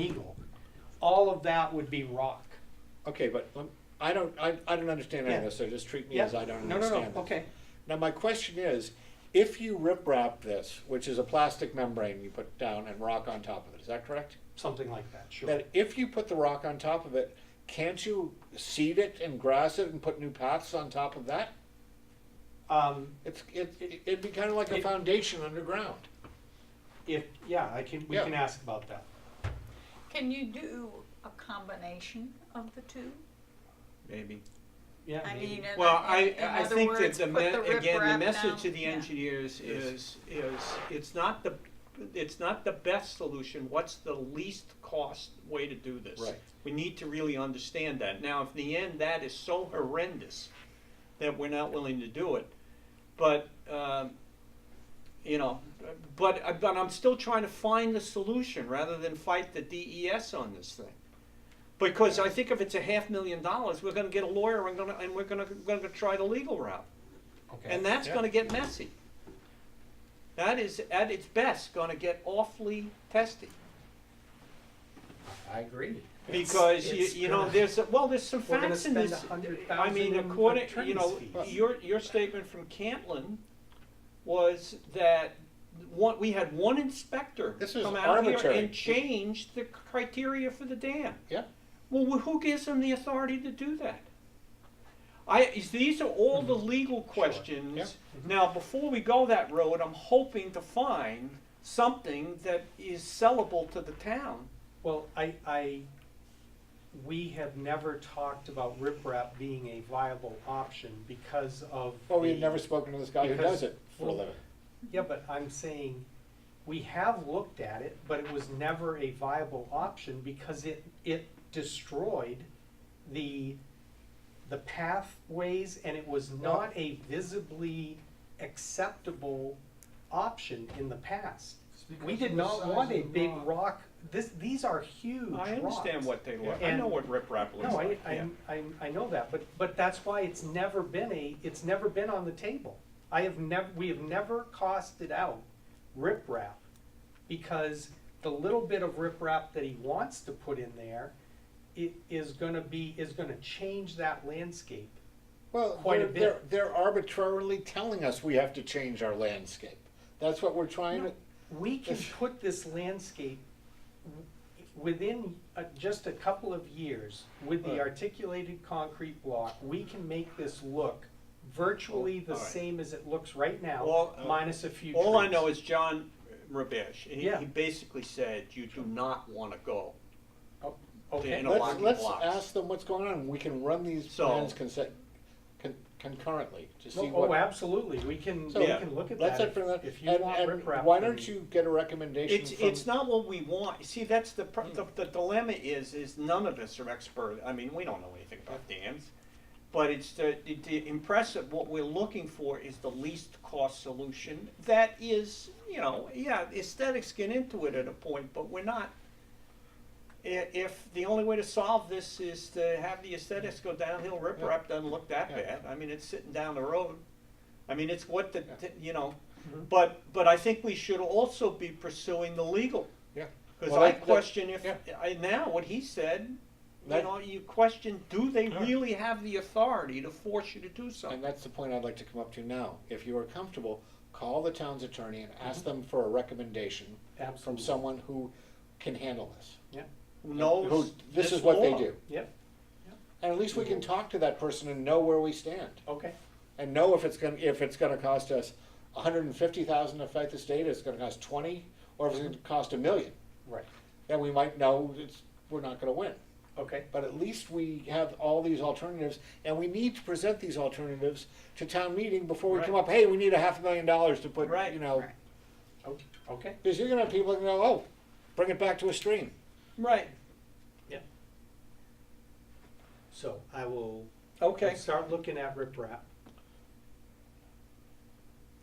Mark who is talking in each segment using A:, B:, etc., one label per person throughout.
A: legal, all of that would be rock.
B: Okay, but um, I don't, I, I don't understand any of this, so just treat me
A: Yeah.
B: as I don't
A: No, no,
B: understand
A: no,
B: it.
A: okay,
B: Now, my question is, if you rip wrap this, which is a plastic membrane you put down and rock on top of it, is that correct?
A: something like that, sure.
B: Then if you put the rock on top of it, can't you seed it and grass it and put new paths on top of that?
A: Um,
B: It's, it, it'd be kind of like a
A: It-
B: foundation underground.
A: if, yeah, I can, we
B: Yeah.
A: can ask about that.
C: Can you do a combination of the two?
D: Maybe.
A: Yeah,
C: I
A: maybe.
C: mean, in,
D: Well,
C: in,
D: I,
C: in
D: I
C: other
D: think that
C: words,
D: the,
C: put
D: me-
C: the
D: again, the
C: riprap
D: message
C: down.
D: to the
C: Yeah.
D: engineers is, is, it's not the, it's not the best solution, what's the least cost way to do this?
B: Right.
D: We need to really understand that. Now, if in the end that is so horrendous that we're not willing to do it, but, um, you know, but, but I'm still trying to find the solution rather than fight the DES on this thing. Because I think if it's a half million dollars, we're gonna get a lawyer and gonna, and we're gonna, gonna try the legal route.
C: uh,
D: And that's
B: Yeah.
D: gonna get messy. That is, at its best, gonna get awfully testy.
E: I agree.
D: Because you,
E: It's-
D: you know, there's, a- well, there's some
A: We're gonna
D: facts in this.
A: spend
D: I mean,
A: $100,000 on
D: according, you
A: attorney's
D: know,
A: fees.
D: your, your statement from Cantlin was that one, we had one inspector
B: This is
D: come out here
B: arbitrary.
D: and change the criteria for the dam.
B: Yeah.
D: Well, wh- who gives them the authority to do that? I, is- these are all the legal
B: Mm-hmm. Yeah.
D: questions.
A: Mm-hmm.
D: Now, before we go that road, I'm hoping to find something that is sellable to the town.
A: Well, I, I, we have never talked about riprap being a viable option because of.
B: Well,
A: the-
B: we've never spoken to this guy who
A: because-
B: does it for a
A: well,
B: living.
A: Yeah, but I'm saying, we have looked at it, but it was never a viable option because it, it destroyed the, the pathways and it was not a visibly acceptable option in the past. We did not want a big rock, this, these are huge
D: I
A: rocks.
D: understand what they look, I
A: And-
D: know what riprap looks
A: No, I,
D: like,
A: I,
D: yeah.
A: I, I know that, but, but that's why it's never been a, it's never been on the table. I have never, we have never costed out riprap, because the little bit of riprap that he wants to put in there, it is gonna be, is gonna change that landscape.
B: Well,
A: quite a
B: they're, they're,
A: bit.
B: they're arbitrarily telling us we have to change our landscape. That's what we're trying to,
A: We can put this landscape w- within uh, just a couple of years, with the
B: Right.
A: articulated concrete block, we can make this look
B: Oh,
A: virtually the
D: All right.
A: same as it looks right now,
D: Well,
B: uh,
A: minus a few trees.
D: All I know is John Rabesh, he,
A: Yeah.
D: he basically said, you do not wanna go.
A: Oh, Okay,
D: in a
B: let's,
D: walking
B: let's
D: blocks.
B: ask them what's going on, we can run these
D: So-
B: plans conse- con- concurrently to see
A: oh,
B: what.
A: absolutely, we can,
B: So,
A: we can look at
B: Let's,
A: that,
B: have for
A: if
B: that.
A: if you
B: and,
A: want
B: and
A: riprap.
B: why
A: then-
B: don't you get a recommendation
D: It's,
B: from? Hmm.
D: it's not what we want, see, that's the, pr- the, the dilemma is, is none of us are expert, I mean, we don't know anything about dams. But it's the, the- the impressive, what we're looking for is the least cost solution, that is, you know, yeah, aesthetics get into it at a point, but we're not. I- if the only way to solve this is to have the aesthetics go downhill, riprap doesn't look that
B: Yeah.
D: bad, I mean, it's sitting down the road. I mean, it's what the,
B: Yeah.
D: you know,
A: Mhm.
D: but, but I think we should also be pursuing the legal.
B: Yeah.
D: Because
B: Well,
D: I
B: that- that-
D: question if,
B: yeah.
D: I, now, what he said, you
B: That-
D: know, you question, do they
B: Yeah.
D: really have the authority to force you to do
B: And
D: something?
B: that's the point I'd like to come up to now, if you are comfortable, call the town's attorney and ask them for a recommendation from
A: Mm-hmm. Absolutely.
B: someone who can handle this.
D: Who
B: Who,
D: knows
B: this
D: this
B: is what they
D: law?
B: do,
A: Yep,
B: and at least we
A: Mm-hmm.
B: can talk to that person and know where we stand.
A: okay,
B: and know if it's gonna, if it's gonna cost us hundred and fifty thousand to fight this data, it's gonna cost twenty, or if it's gonna cost a million,
A: right,
B: then we might know it's, we're not gonna win.
A: okay,
B: But at least we have all these alternatives, and we need to present these alternatives to town meeting before we come
D: Right.
B: up, hey, we need a half a million dollars to put,
D: Right.
B: you know.
C: Right.
A: o- okay,
B: Cause you're gonna have people that go, oh, bring it back to a stream.
D: Right,
A: so I will
D: okay,
A: Let's Start looking at riprap.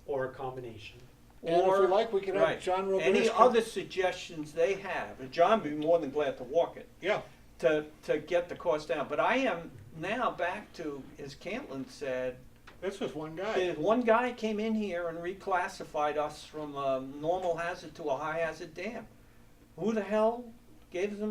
A: Or a combination.
B: And if we
D: Or-
B: like, we can have
D: right.
B: John Roberts.
D: Any
B: come-
D: other suggestions they have, and John would be more than glad to walk it,
B: Yeah,
D: to, to get the cost down. But I am now back to, as Cantlin said,
B: this was one guy.
D: The One guy came in here and reclassified us from a normal hazard to a high hazard dam. Who the hell gave them